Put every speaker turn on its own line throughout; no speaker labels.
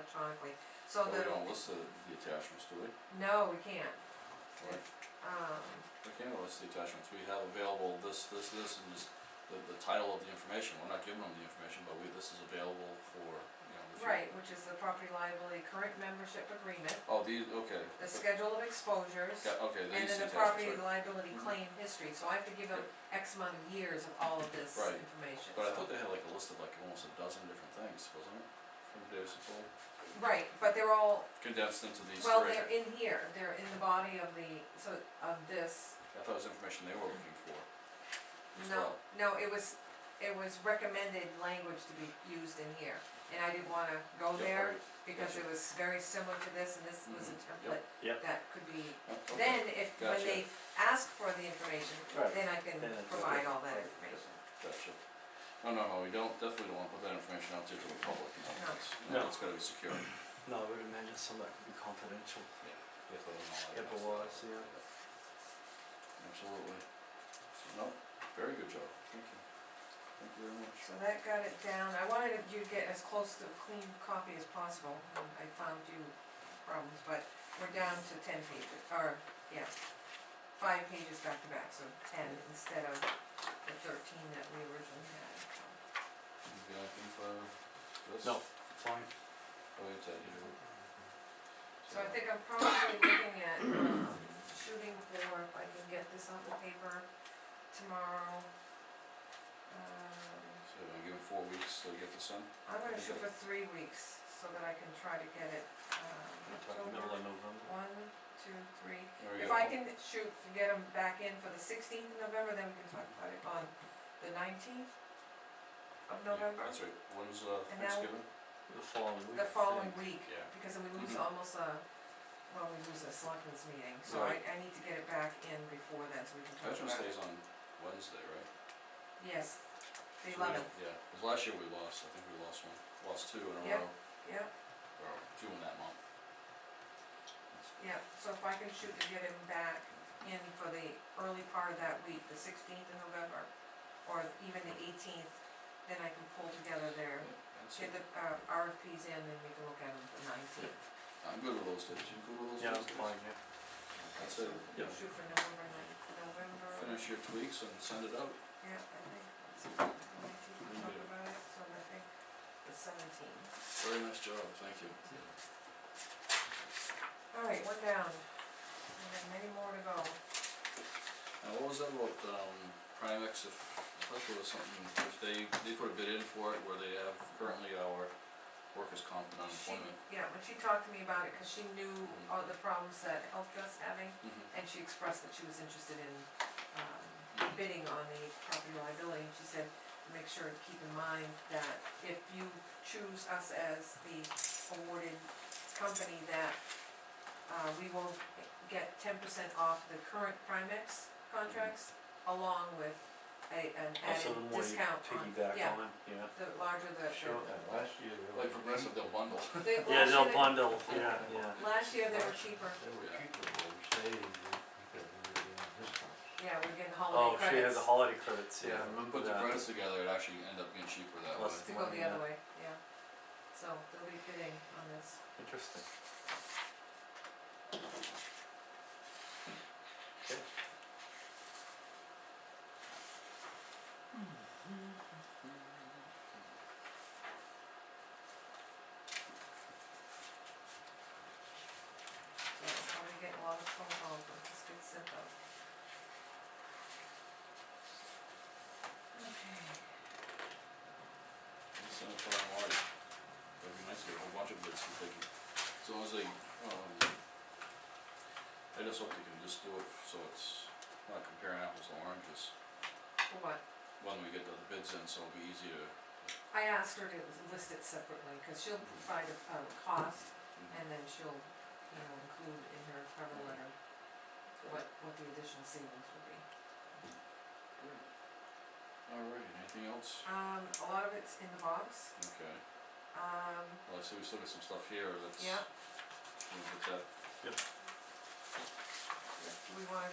electronically, so
But
the,
we don't list the, the attachments, do we?
no, we can't.
Right.
Um,
We can't list the attachments, we have available this, this, this, and this, the, the title of the information, we're not giving them the information, but we, this is available for, you know, the. future.
right, which is the property liability current membership agreement,
Oh, these, okay.
the schedule of exposures,
Yeah, okay,
and
these
then the
attachments,
property
right.
liability
Mhm.
claim history, so I have to give them X amount of years of all of this
Right.
information,
But I
so-
thought they had like a list of like almost a dozen different things, wasn't it? From Davis and Toll,
Right, but they're all,
condensed into these
well,
three,
they're in here, they're in the body of the, so, of this,
I thought it was information they were looking for.
Oh,
as
No,
well.
no, it was, it was recommended language to be used in here, and I didn't wanna go
Yep,
there,
alright,
because it was very similar to this, and this was a
Mhm,
template
Mm-hmm. Yep.
that could be,
oh, okay.
then if, when
Gotcha.
they ask for the information,
Right.
then I can
Then it's
provide
okay.
all that
Right.
information.
Gotcha. No, no, no, we don't, definitely don't wanna put that information out there to the public, no,
No.
that's,
No.
that's gotta be secure.
No, I would imagine some that could be confidential.
Yeah, but I'm not-
HIPAA wise, yeah.
Absolutely. No, very good job, thank you. Thank you very much.
So that got it down, I wanted you to get as close to a clean copy as possible, and I found you problems, but we're down to ten pages, or, yeah, five pages back to back, so ten instead of the thirteen that we originally had, so.
You got anything for this?
No. Fine.
Oh, it's out here.
So I think I'm probably looking at, um, shooting for, if I can get this on the paper tomorrow. Um,
So I'm giving four weeks to get this in,
I'm gonna shoot for three weeks, so that I can try to get it, um,
middle
October,
of November.
one, two, three.
there we go.
If I can shoot to get them back in for the sixteenth of November, then we can talk about it on the nineteenth of
Yeah,
November,
That's right, when's uh
And now-
Thanksgiving?
The following week.
the
I
following
think.
week,
Yeah.
because then we lose
Mhm.
almost a, well, we lose a selectmen's meeting, so I,
Right.
I need to get it back in before then, so we can talk
Veterans
about it.
Day's on Wednesday, right?
Yes, the
So we-
eleventh,
Yeah, 'cause last year we lost, I think we lost one, lost two in a
Yep.
row,
yeah,
or two in that month.
yeah, so if I can shoot to get him back in for the early part of that week, the sixteenth of November, or even the eighteenth, then I can pull together their,
Yeah, that's
get
it.
the, uh, RFPs in, and we can look at them the nineteenth.
I'm good with those days, you good with those days?
Yeah, I'm fine, yeah.
That's it.
Yeah.
Shoot for November ninth, November.
Finish your tweaks and send it out.
Yeah, I think that's, I might keep on talking about it, so I think the seventeenth.
Very nice job, thank you.
Alright, one down. We have many more to go.
Now, what was that about, um, Primex, if, I thought there was something, if they, they put a bid in for it where they have currently our workers' comp and
She,
unemployment.
yeah, when she talked to me about it, cause she knew all the problems that Health Trust's having,
Mm-hmm.
Mhm.
and she expressed that she was interested in, um, bidding on the property liability, and she said, make sure to keep in mind that if you choose us as the awarded company, that, uh, we will get ten percent off the current Primex contracts, along with a, an
Also,
added
the more you
discount on,
piggyback
yeah,
on it, yeah.
the larger the, the
Sure.
last year. they
Like
were
progressive, they'll bundle.
They, last
Yeah,
year,
they'll
they-
bundle, yeah, yeah.
last year they were cheaper,
cheap- They were
Yeah.
cheaper, but we stayed in it because we were doing discounts.
yeah, we're getting
Oh,
holiday
she had
credits to
the holiday credits, yeah, I remember
Put the
that.
credits together, it actually end up being cheaper that way.
Plus-
go the other way, yeah. So they'll be bidding on this.
Interesting.
So I'm gonna get a lot of phone calls, but this gets sent out. Okay,
Send it to our lawyer. That'd be nice to get a whole bunch of bids from taking, as long as they, um, I just hope they can just do it so it's not comparing apples to oranges
for what?
when we get the bids in, so it'll be easy to.
I asked her to list it separately, cause she'll provide a, a cost, and then she'll, you know, include in her cover letter what, what the additional savings will be.
Alright, anything else?
Um, a lot of it's in the box,
Okay,
um,
well, I see we still got some stuff here that's.
Yeah.
We'll get that,
do we wanna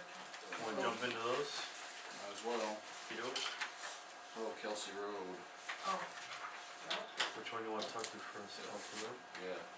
Wanna
Oh.
jump into those?
might as well,
You do?
oh, Kelsey Road,
Oh, well,
Which one you wanna talk to first?
Yeah.
Talk to them?
yeah,